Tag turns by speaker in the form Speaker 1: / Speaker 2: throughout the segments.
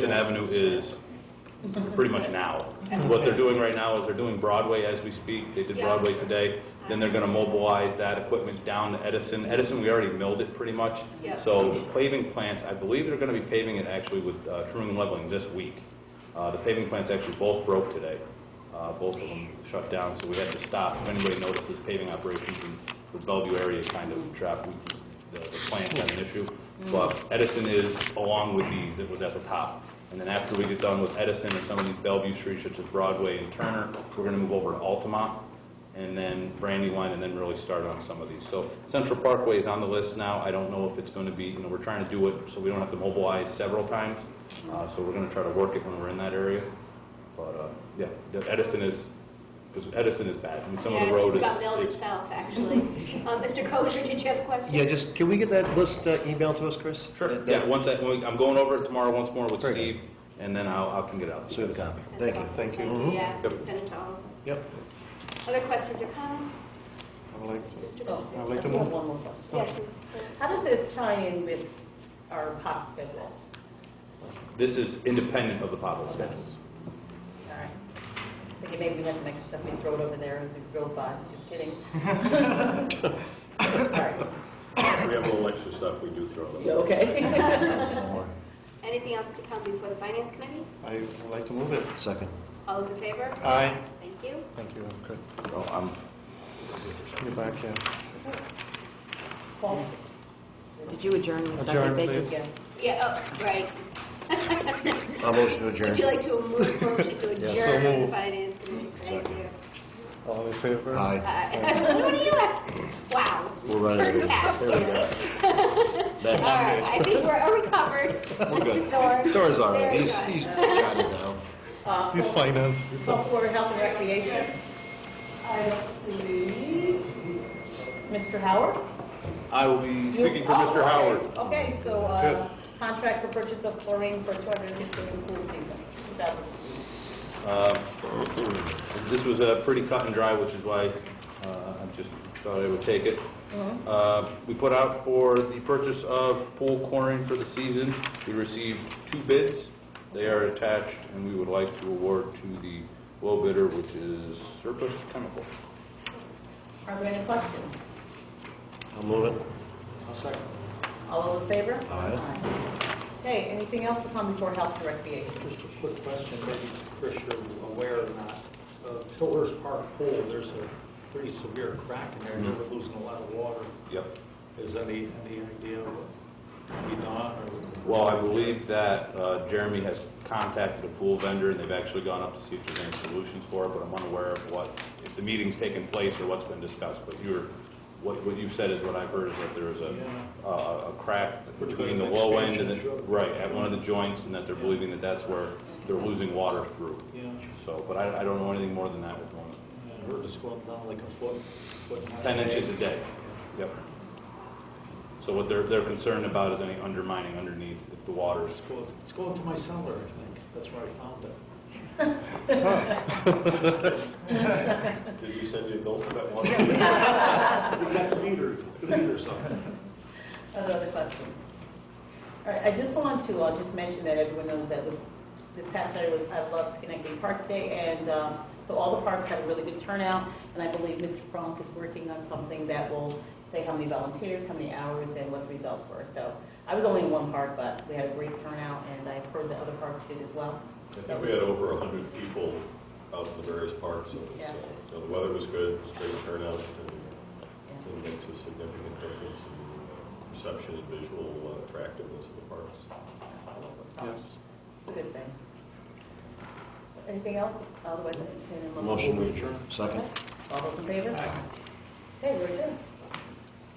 Speaker 1: Madison Avenue is pretty much now. What they're doing right now is they're doing Broadway as we speak. They did Broadway today. Then they're going to mobilize that equipment down to Edison. Edison, we already milled it pretty much.
Speaker 2: Yeah.
Speaker 1: So the paving plants, I believe they're going to be paving it actually with uh, Truman Leveling this week. Uh, The paving plants actually both broke today. Uh, Both of them shut down, so we had to stop. If anybody notices paving operations in the Bellevue area kind of trapped, the the plant had an issue. But Edison is along with these, it was at the top. And then after we get done with Edison and some of these Bellevue streets, such as Broadway and Turner, we're going to move over to Altamont and then Brandywine, and then really start on some of these. So Central Parkway is on the list now. I don't know if it's going to be, you know, we're trying to do it so we don't have to mobilize several times. Uh, So we're going to try to work it when we're in that area. But, uh, yeah, the Edison is, because Edison is bad. I mean, some of the
Speaker 2: Yeah,
Speaker 1: road
Speaker 2: it's about milled
Speaker 1: is,
Speaker 2: itself, actually. Um, Mr. Kosher, did you have a question?
Speaker 3: Yeah, just, can we get that list uh, emailed to us, Chris?
Speaker 1: sure,
Speaker 3: That-
Speaker 1: yeah,
Speaker 3: that-
Speaker 1: once I, when we- I'm going over it tomorrow once more with
Speaker 3: Very
Speaker 1: Steve, and then I'll, I can get out.
Speaker 3: So we have a copy. Thank you. Mm-hmm.
Speaker 2: Thank you, yeah,
Speaker 1: Yep.
Speaker 2: send it to all. of
Speaker 3: Yep.
Speaker 2: us. Other questions or comments? Mr. Kosher?
Speaker 4: I do have Oh. one more question.
Speaker 2: Yes, please.
Speaker 4: How does this tie in with our pop schedule?
Speaker 1: This is independent of the potholes.
Speaker 4: All right. Okay, maybe we have some extra stuff, we throw it over there as we drove by, just kidding. All right.
Speaker 5: We have a little extra stuff we do throw them.
Speaker 4: You okay?
Speaker 2: Anything else to come before the finance committee?
Speaker 6: I would like to move it.
Speaker 3: Second.
Speaker 2: All those in favor?
Speaker 3: Uh,
Speaker 6: Aye.
Speaker 2: Thank you.
Speaker 6: Thank you, I'm good.
Speaker 1: So I'm,
Speaker 6: You're back in.
Speaker 4: Paul?
Speaker 7: Did you adjourn with second
Speaker 6: Adjourn, please.
Speaker 7: vacancy?
Speaker 4: Yeah.
Speaker 2: Yeah, oh, right.
Speaker 3: I'll motion to adjourn.
Speaker 2: Would you like to move, motion to
Speaker 3: Yeah, so
Speaker 2: adjourn the
Speaker 6: moved.
Speaker 2: finance committee? Thank you.
Speaker 6: All in favor?
Speaker 3: Aye.
Speaker 2: Aye. What are you at? Wow.
Speaker 3: We're right
Speaker 2: Turn
Speaker 3: over here.
Speaker 2: cats.
Speaker 3: There we go.
Speaker 2: All right, I think we're, are we covered? Mr. Thorne?
Speaker 3: Dora's all right,
Speaker 2: Very
Speaker 3: he's,
Speaker 2: good.
Speaker 3: he's got it down.
Speaker 4: Uh,
Speaker 6: He's finance.
Speaker 4: Full Board Health and Recreation. I see. Mr. Howard?
Speaker 1: I will be speaking for
Speaker 4: You-
Speaker 1: Mr.
Speaker 4: oh,
Speaker 1: Howard.
Speaker 4: okay. Okay, so, uh, contract for purchase of chlorine for 250 in pool season, 2000.
Speaker 1: Um, This was uh, pretty cut and dry, which is why uh, I just thought I would take it. Uh, We put out for the purchase of pool chlorine for the season. We received two bids. They are attached, and we would like to award to the low bidder, which is Surplus Chemical.
Speaker 4: Are there any questions?
Speaker 3: I'll move it.
Speaker 4: All those in favor?
Speaker 3: Aye.
Speaker 4: Okay, anything else to come before Health and Recreation?
Speaker 8: Just a quick question, maybe Chris, you're aware or not. Uh, Pillars Park Pool, there's a pretty severe crack in there, and they're losing a lot of water.
Speaker 1: Yep.
Speaker 8: Is any, any idea what we done or?
Speaker 1: Well, I believe that uh, Jeremy has contacted a pool vendor, and they've actually gone up to see if there's any solutions for it, but I'm unaware of what, if the meeting's taken place or what's been discussed, but you're, what, what you've said is what I've heard, is that there is a, uh,
Speaker 8: Yeah.
Speaker 1: a a crack
Speaker 8: Pretty
Speaker 1: between the
Speaker 8: good
Speaker 1: low end and the,
Speaker 8: expansion, sure.
Speaker 1: right, at one of the joints, and that they're
Speaker 8: Yeah.
Speaker 1: believing that that's where they're losing water through.
Speaker 8: Yeah,
Speaker 1: So, but I, I don't know anything more than that with one,
Speaker 8: I heard it's going down like a foot, foot and a half.
Speaker 1: ten inches a day, yep. So what they're, they're concerned about is any undermining underneath, if the water's
Speaker 8: It's going, it's going to my cellar, I think. That's where I found it.
Speaker 5: Did we send you a bill for that one?
Speaker 8: We got the meter, the meter somewhere.
Speaker 4: Another question. All right, I just want to, uh just mention that everyone knows that was, this past Saturday was, I love Schenectady Parks Day, and um, so all the parks had a really good turnout, and I believe Mr. Frank is working on something that will say how many volunteers, how many hours, and what the results were. So I was only in one park, but we had a great turnout, and I've heard that other parks did as well.
Speaker 5: I think we had over 100 people out in the various parks. so it was,
Speaker 4: Yeah.
Speaker 5: uh, you know, The weather was good, it was great turnout, and
Speaker 4: Yeah.
Speaker 5: it makes a significant difference in uh, perception and visual uh, attractiveness of the parks.
Speaker 4: So
Speaker 6: Yes.
Speaker 4: It's a good thing. Anything else? Otherwise, I entertain a
Speaker 3: Motion to adjourn. Second.
Speaker 4: All those in favor? Okay, we're adjourned.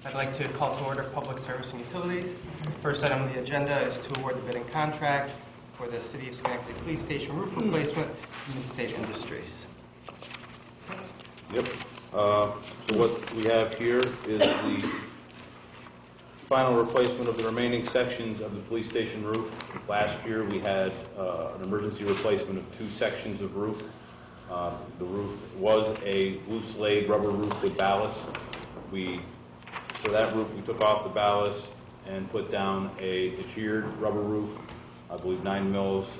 Speaker 9: I'd like to call to order Public Service and Utilities. First item on the agenda is to award the bidding contract for the City of Schenectady Police Station roof replacement to Midstate Industries.
Speaker 1: Yep. Uh, So what we have here is the final replacement of the remaining sections of the police station roof. Last year, we had uh, an emergency replacement of two sections of roof. Uh, The roof was a loose laid rubber roof with ballast. We, for that roof, we took off the ballast and put down a tiered rubber roof I believe nine mills